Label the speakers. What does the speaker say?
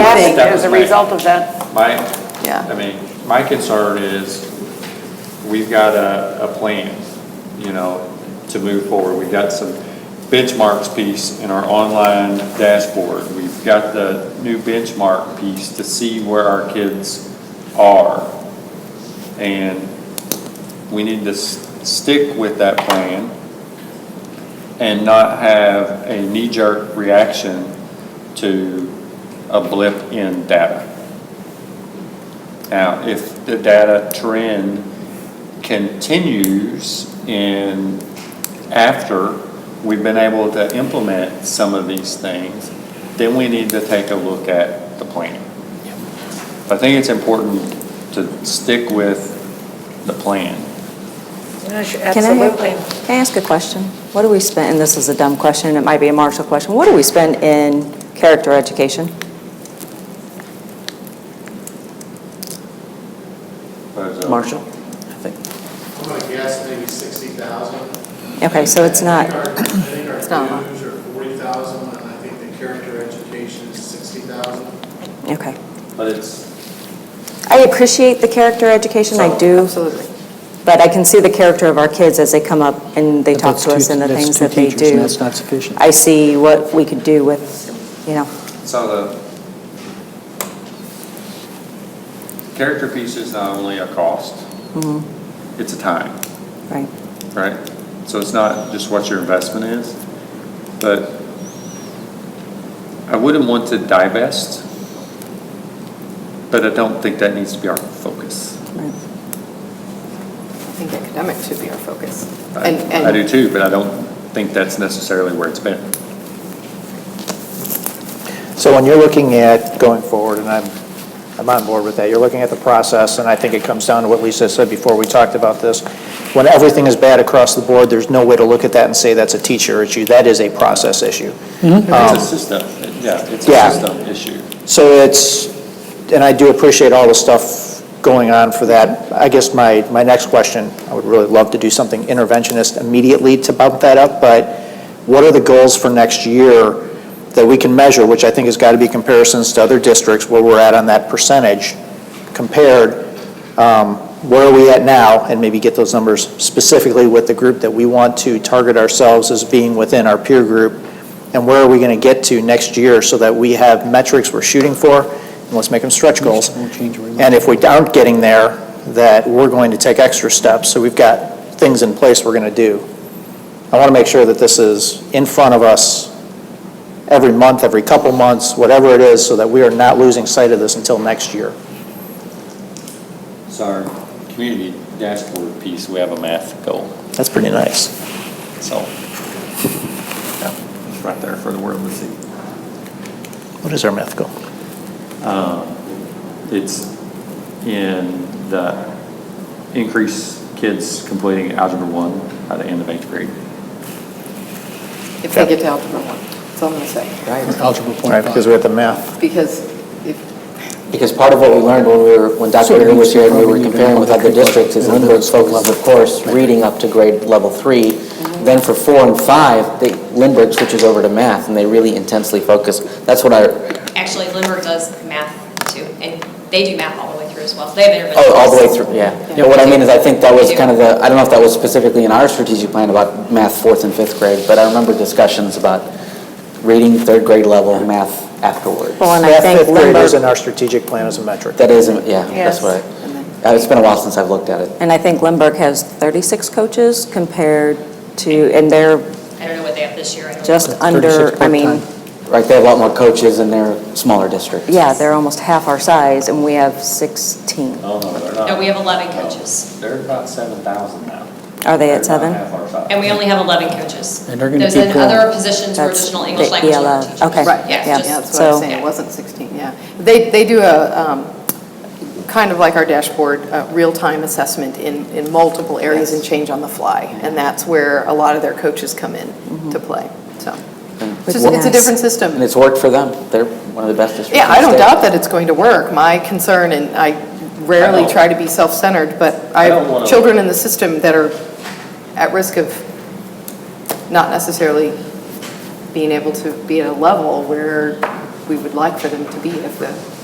Speaker 1: late
Speaker 2: that
Speaker 1: as
Speaker 2: was
Speaker 1: a
Speaker 2: my-
Speaker 1: result of that.
Speaker 2: My,
Speaker 1: Yeah.
Speaker 2: I mean, my concern is, we've got a, a plan, you know, to move forward. We've got some benchmarks piece in our online dashboard. We've got the new benchmark piece to see where our kids are. And we need to s- stick with that plan and not have a knee-jerk reaction to a blip in data. Now, if the data trend continues in after we've been able to implement some of these things, then we need to take a look at the plan. I think it's important to stick with the plan.
Speaker 3: Can I- Can I ask a question? What do we spend, and this is a dumb question, it might be a Marshall question, what do we spend in character education?
Speaker 4: Marshall?
Speaker 5: I'm gonna guess maybe sixty thousand.
Speaker 3: Okay, so it's
Speaker 5: I
Speaker 3: not,
Speaker 5: think our- I think
Speaker 1: It's not a
Speaker 5: our
Speaker 1: lot.
Speaker 5: dues are forty thousand, and I think the character education is sixty thousand.
Speaker 3: okay.
Speaker 2: But it's,
Speaker 3: I appreciate the character education, I do,
Speaker 1: Absolutely.
Speaker 3: but I can see the character of our kids as they come up and they talk to us and the things that they do.
Speaker 4: That's not sufficient.
Speaker 3: I see what we could do with, you know,
Speaker 2: so the character piece is not only a cost, it's a time.
Speaker 3: mm-hmm, right.
Speaker 2: right? So it's not just what your investment is, but I wouldn't want to divest, but I don't think that needs to be our focus.
Speaker 3: right.
Speaker 1: I think academics should be our focus.
Speaker 2: I
Speaker 1: And, and.
Speaker 2: I do too, but I don't think that's necessarily where it's been.
Speaker 6: So when you're looking at going forward, and I'm, I'm on board with that, you're looking at the process, and I think it comes down to what Lisa said before we talked about this. When everything is bad across the board, there's no way to look at that and say that's a teacher issue. That is a process issue.
Speaker 4: Mm-hmm.
Speaker 6: Um,
Speaker 2: It's a system, yeah, it's a
Speaker 6: Yeah.
Speaker 2: system issue.
Speaker 6: So it's, and I do appreciate all the stuff going on for that. I guess my, my next question, I would really love to do something interventionist immediately to bump that up, but what are the goals for next year that we can measure, which I think has got to be comparisons to other districts where we're at on that percentage compared, um, where are we at now, and maybe get those numbers specifically with the group that we want to target ourselves as being within our peer group, and where are we going to get to next year so that we have metrics we're shooting for, and let's make them stretch goals.
Speaker 4: Won't change very much.
Speaker 6: And if we aren't getting there, that we're going to take extra steps, so we've got things in place we're going to do. I want to make sure that this is in front of us every month, every couple months, whatever it is, so that we are not losing sight of this until next year.
Speaker 2: So our community dashboard piece, we have a math goal,
Speaker 6: That's pretty nice.
Speaker 2: so, yeah, it's right there for the world to see.
Speaker 6: What is our math goal?
Speaker 2: It's in the increase kids completing algebra one by the end of eighth grade.
Speaker 1: If they get to algebra one, that's all I'm going to say.
Speaker 4: Algebra
Speaker 6: Right, because we have the math.
Speaker 1: Because if,
Speaker 7: Because part of what we learned when we were, when
Speaker 4: So
Speaker 7: Dr.
Speaker 4: it
Speaker 7: Aaron was
Speaker 4: means
Speaker 7: here and we were
Speaker 4: probably even
Speaker 7: comparing with other
Speaker 4: other people-
Speaker 7: districts is
Speaker 4: other
Speaker 7: Lindbergh's
Speaker 4: schools.
Speaker 7: focus, of course, reading up to grade level three. Then for four and five, they- Lindbergh switches over to math and they really intensely focus. That's what I,
Speaker 8: Actually, Lindbergh does math too, and they do math all the way through as well. They have interventions.
Speaker 7: oh, all the way through, yeah. But what I mean is I think that was kind of the, I don't know if that was specifically in our strategic plan about math fourth and fifth grade, but I remember discussions about reading third grade level, math afterwards.
Speaker 3: Well, and I
Speaker 6: Math
Speaker 3: think
Speaker 6: fifth grade is in
Speaker 3: Lindbergh,
Speaker 6: our strategic plan as a metric.
Speaker 7: That is, yeah,
Speaker 1: Yes.
Speaker 7: that's what, I- uh, it's been a while since I've looked at it.
Speaker 3: and I think Lindbergh has 36 coaches compared to, and they're
Speaker 8: I don't know what they have this year. I don't know.
Speaker 3: just under,
Speaker 4: 36
Speaker 3: I mean,
Speaker 4: part-time.
Speaker 7: Right, they have a lot more coaches in their smaller districts.
Speaker 3: yeah, they're almost half our size, and we have 16.
Speaker 2: Oh, no, they're not.
Speaker 8: No, we have 11 coaches.
Speaker 2: They're about seven thousand now.
Speaker 3: Are they at
Speaker 2: They're about
Speaker 3: seven?
Speaker 2: half our size.
Speaker 8: And we only have 11 coaches.
Speaker 4: And they're gonna
Speaker 8: There's
Speaker 4: keep
Speaker 8: then
Speaker 4: growing.
Speaker 8: other positions where
Speaker 3: That's
Speaker 8: additional English
Speaker 3: the
Speaker 8: language
Speaker 3: ELL.
Speaker 8: learning teachers.
Speaker 3: Okay.
Speaker 1: right,
Speaker 3: Yeah,
Speaker 8: Yeah,
Speaker 1: yeah,
Speaker 8: just-
Speaker 1: that's what I
Speaker 3: so-
Speaker 1: was saying, it wasn't 16, yeah. They, they do a, um, kind of like our dashboard, uh, real-time assessment in, in multiple areas and change on the fly, and that's where a lot of their coaches come in to play, so. It's just- it's a
Speaker 3: Yes.
Speaker 1: different system.
Speaker 7: And it's worked for them. They're one of the best districts.
Speaker 1: Yeah,
Speaker 7: in
Speaker 1: I don't
Speaker 7: the state.
Speaker 1: doubt that it's going to work. My concern, and I
Speaker 2: I
Speaker 1: rarely
Speaker 2: don't-
Speaker 1: try to be self-centered, but I
Speaker 2: I don't wanna-
Speaker 1: have children in the system that are at risk of not necessarily being able to be at a level where we would like for them to be if the